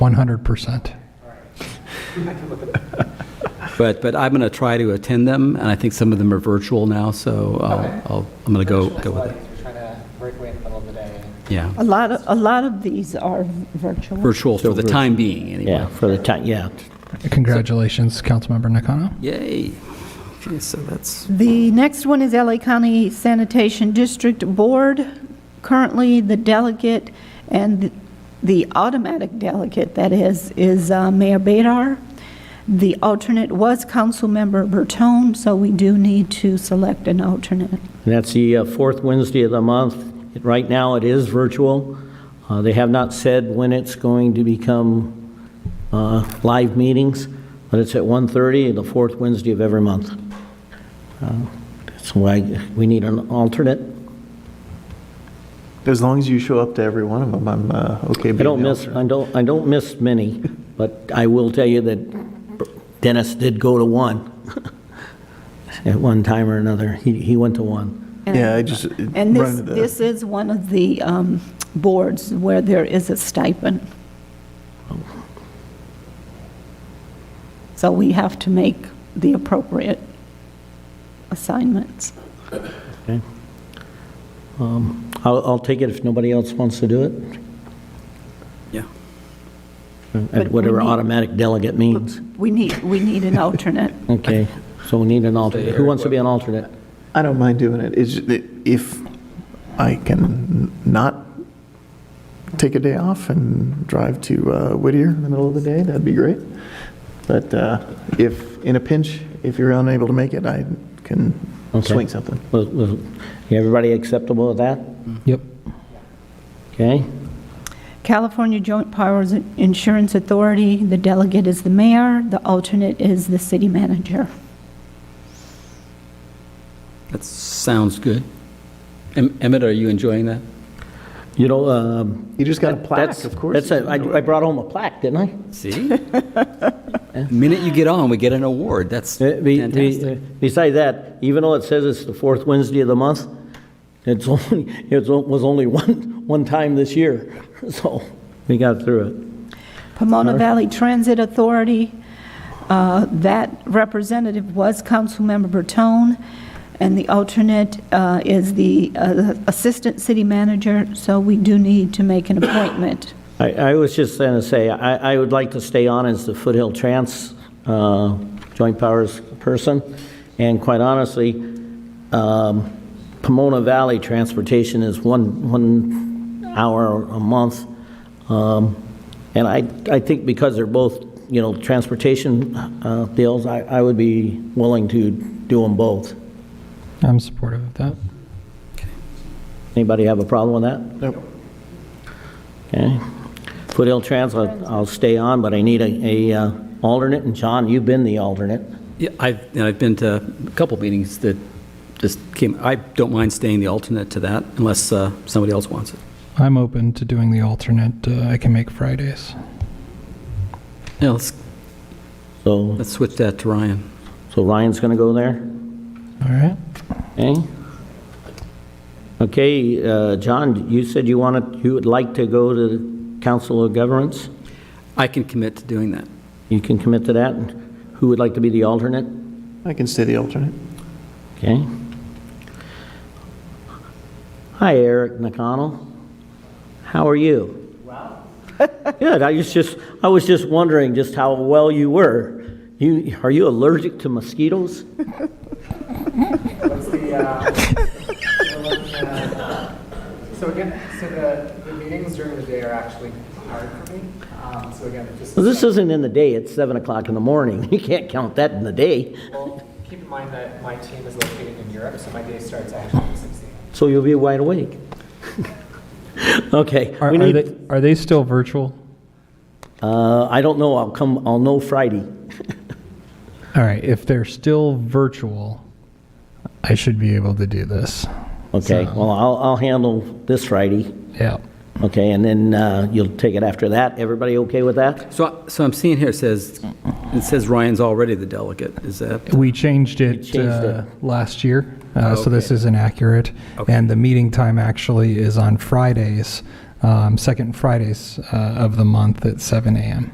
100%. But, but I'm going to try to attend them, and I think some of them are virtual now, so Okay. I'll- I'll, I'm going to Oh, go, go with it. We're trying to break away in the middle of the day. Yeah, A lot, of- a lot of these are virtual. virtual for the time being, Yeah, anyway. for the time, yeah. Congratulations, Councilmember Nakano. Yay. Okay, so that's, The next one is LA County Sanitation District Board. Currently, the delegate and the automatic delegate, that is, is uh, Mayor Bedar. The alternate was Councilmember Bertone, so we do need to select an alternate. And that's the uh, fourth Wednesday of the month. It- Right now, it is virtual. Uh, They have not said when it's going to become uh, live meetings, but it's at 1:30, the fourth Wednesday of every month. Uh, That's why we need an alternate. As long as you show up to every one of them, I'm uh, okay. I being don't the miss, alternate. I don't, I don't miss many, but I will tell you that Dennis did go to one at one time or another. He he went to one. Yeah, I just uh, And run this, into this the, is one of the um, boards where there is a stipend. So we have to make the appropriate assignments. Okay. Um, I'll, I'll take it if nobody else wants to do it, yeah. we at whatever need- automatic delegate means. We need, we need an alternate. Okay, so we need an alternate. Who wants to be an alternate? I don't mind doing it. It's, just that if I can not take a day off and drive to uh, Whittier in the middle of the day, that'd be great. But uh, if, in a pinch, if you're unable to make it, I can Okay. swing something. Was- was- Everybody acceptable with that? Yep. Okay? California Joint Powers Insurance Authority, the delegate is the mayor, the alternate is the city manager. That sounds good. Em- Emmett, are you enjoying that? You know, um, You just got a plaque, that's, of course. that's, a- I I brought home a plaque, didn't I? See? Minute you get on, we get an award. That's Uh, be- be- fantastic. Besides that, even though it says it's the fourth Wednesday of the month, it's only, it was only one, one time this year, so we got through it. Pomona Valley Transit Authority, uh, that representative was Councilmember Bertone, and the alternate uh, is the uh, Assistant City Manager, so we do need to make an appointment. I, I was just going to say, I, I would like to stay on as the Foothill Trans uh, Joint Powers person, and quite honestly, um, Pomona Valley Transportation is one, one hour a month, Um, and I, I think because they're both, you know, transportation uh, deals, I, I would be willing to do them both. I'm supportive of that. Anybody have a problem with that? Nope. Okay. Foothill Trans, I'll I'll stay on, but I need a, a uh, alternate, and John, you've been the alternate. Yeah, I've, and I've been to a couple meetings that just came, I don't mind staying the alternate to that unless uh, somebody else wants it. I'm open to doing the alternate. Uh, I can make Fridays. Yeah, let's, So, let's switch that to Ryan. so Ryan's going to go there, All right. okay? Okay, uh, John, you said you wanted, you would like to go to the Council of Governments? I can commit to doing that. You can commit to that? Who would like to be the alternate? I can stay the alternate. Okay. Hmm? Hi, Eric McConnell. How are you? Wow. Good. I was just, I was just wondering just how well you were. You, are you allergic to mosquitoes? What's the, uh, we're looking at- so again, so the, the meetings during the day are actually hard for me. Um, So again, just. Well, this isn't in the day. It's seven o'clock in the morning. You can't count that in the day. Well, keep in mind that my team is located in Europe, so my day starts actually at 6 a.m. So you'll be wide awake. okay. Are, we are need- they, are they still virtual? uh, I don't know. I'll come. I'll know Friday. All right. If they're still virtual, I should be able to do this. Okay. So- Well, I'll, I'll handle this Friday. Yeah. Okay, and then uh, you'll take it after that. Everybody okay with that? So, I- so I'm seeing here, it says, it says Ryan's already the delegate. Is that, We changed it, changed uh, last year, uh, so this is inaccurate. Okay. And the meeting time actually is on Fridays um, second Fridays uh, of the month at 7 a.m.